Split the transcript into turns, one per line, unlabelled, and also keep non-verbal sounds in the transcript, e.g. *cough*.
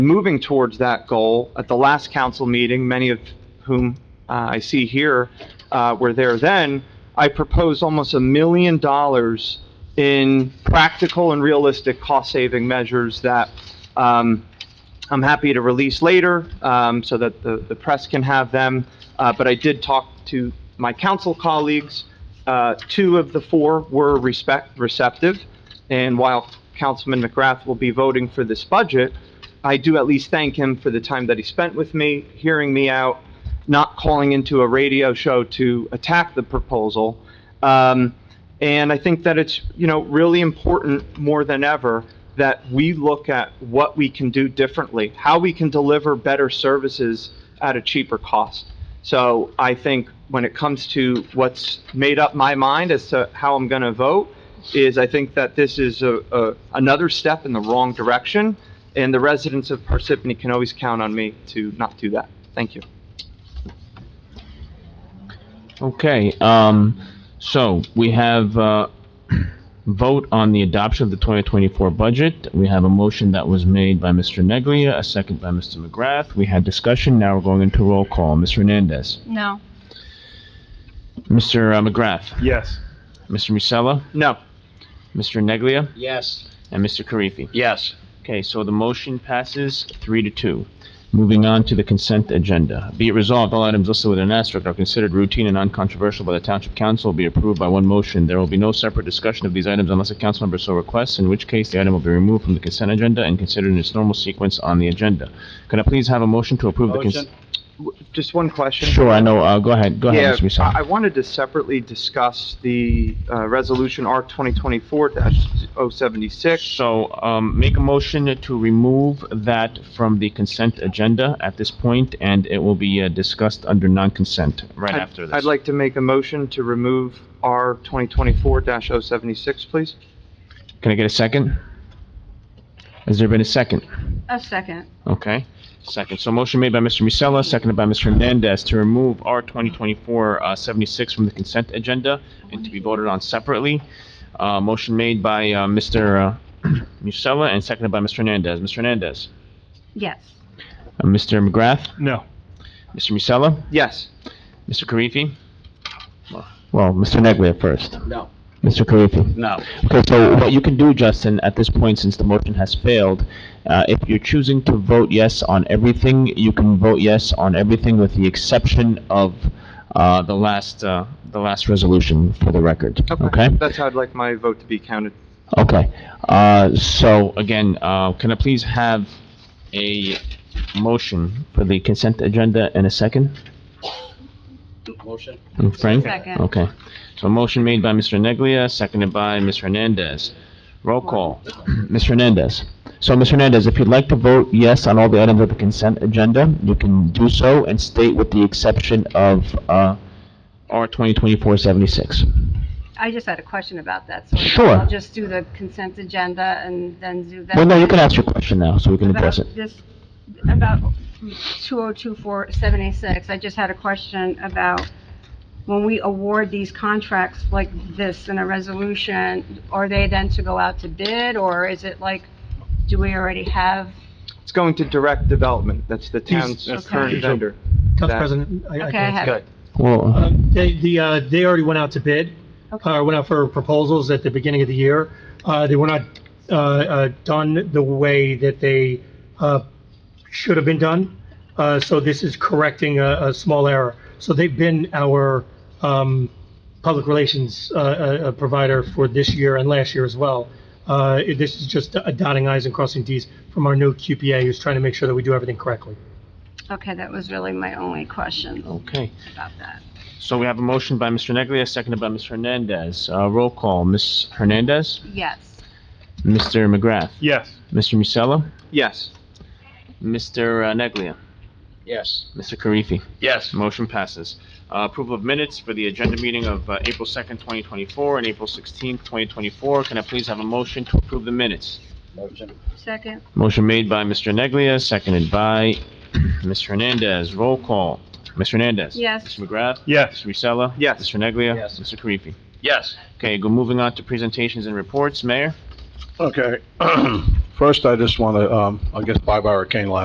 moving towards that goal. At the last council meeting, many of whom uh, I see here uh, were there then, I proposed almost a million dollars in practical and realistic cost-saving measures that um, I'm happy to release later um, so that the the press can have them. Uh, But I did talk to my council colleagues. Uh, Two of the four were respect, receptive. And while Councilman McGrath will be voting for this budget, I do at least thank him for the time that he spent with me, hearing me out, not calling into a radio show to attack the proposal. Um, and I think that it's, you know, really important more than ever that we look at what we can do differently, how we can deliver better services at a cheaper cost. So I think when it comes to what's made up my mind as to how I'm going to vote, is I think that this is a, a, another step in the wrong direction, and the residents of Parsippany can always count on me to not do that. Thank you.
Okay, um, so we have, uh, vote on the adoption of the 2024 budget. We have a motion that was made by Mr. Neglia, a second by Mr. McGrath. We had discussion, now we're going into roll call. Ms. Hernandez.
No.
Mr. McGrath.
Yes.
Mr. Musella.
No.
Mr. Neglia.
Yes.
And Mr. Karifi.
Yes.
Okay, so the motion passes three to two. Moving on to the consent agenda. Be it resolved, all items listed with an asterisk are considered routine and uncontroversial by the Township Council, be approved by one motion. There will be no separate discussion of these items unless a council member so requests, in which case the item will be removed from the consent agenda and considered in its normal sequence on the agenda. Can I please have a motion to approve the consent?
Motion.
W- Just one question.
Sure, I know, uh, go ahead, go
Yeah,
ahead, Mr.
I I
Musella.
wanted to separately discuss the, uh, resolution R twenty twenty-four oh 76
So, um, make a motion to remove that from the consent agenda at this point, and it will be uh, discussed under non-consent right
I'd-
after this.
I'd like to make a motion to remove R twenty twenty-four 76 please.
Can I get a second? Has there been a second?
A second.
Okay, second. So motion made by Mr. Musella, seconded by Mr. Hernandez to remove R 2024-76 from the consent agenda and to be voted on separately. Uh, Motion made by uh, *clears throat* Mr. uh, Musella and seconded by Mr. Hernandez. Mr. Hernandez?
Yes.
Uh, Mr. McGrath?
No.
Mr. Musella?
Yes.
Mr. Karifi? Well, Mr. Neglia first.
No.
Mr. Karifi?
No.
Okay, so what you can do, Justin, at this point, since the motion has failed, uh, if you're choosing to vote yes on everything, you can vote yes on everything with the exception of uh, the last, uh, the last resolution for the record, okay?
That's how I'd like my vote to be counted.
Okay, Uh, so again, uh, can I please have a motion for the consent agenda in a second?
Motion.
And Frank?
Second.
Okay, so a motion made by Mr. Neglia, seconded by Ms. Hernandez. Roll call, *clears throat* Ms. Hernandez. So, Ms. Hernandez, if you'd like to vote yes on all the items of the consent agenda, you can do so and state with the exception of, uh, R 2024-76.
I just had a question about that, so
Sure.
I'll just do the consent agenda and then do that.
Well, no, you can ask your question now, so we can
About
address it.
this, about 2024786, I just had a question about when we award these contracts like this in a resolution, are they then to go out to bid, or is it like, do we already have?
It's going to direct development. That's the
He's-
town's
that's
current
usual.
vendor.
Council
That-
President, I-
Okay,
I
I
can-
have it.
Well,
Um, They, the, uh, they already went out to bid,
Okay.
uh, went out for proposals at the beginning of the year. Uh, They were not uh, uh, done the way that they uh, should have been done, Uh, so this is correcting a a small error. So they've been our um, public relations uh, uh, uh, provider for this year and last year as well. Uh, it- This is just uh, dotting i's and crossing t's from our new QPA, who's trying to make sure that we do everything correctly.
Okay, that was really my only question
okay.
about that.
So we have a motion by Mr. Neglia, seconded by Ms. Hernandez. Uh, Roll call, Ms. Hernandez,
Yes.
Mr. McGrath,
Yes.
Mr. Musella,
Yes.
Mr. uh, Neglia,
Yes.
Mr. Karifi.
Yes.
Motion passes. Uh, Approval of minutes for the agenda meeting of uh, April 2nd, 2024, and April 16th, 2024. Can I please have a motion to approve the minutes?
Motion.
Second?
Motion made by Mr. Neglia, seconded by *clears throat* Ms. Hernandez. Roll call. Ms. Hernandez?
Yes.
Mr. McGrath?
Yes.
Mr. Musella?
Yes.
Mr. Neglia?
Yes.
Mr. Karifi?
Yes.
Okay, go moving on to presentations and reports. Mayor?
Okay. First, I just want to, um, I guess, bye-bye Hurricane Laura.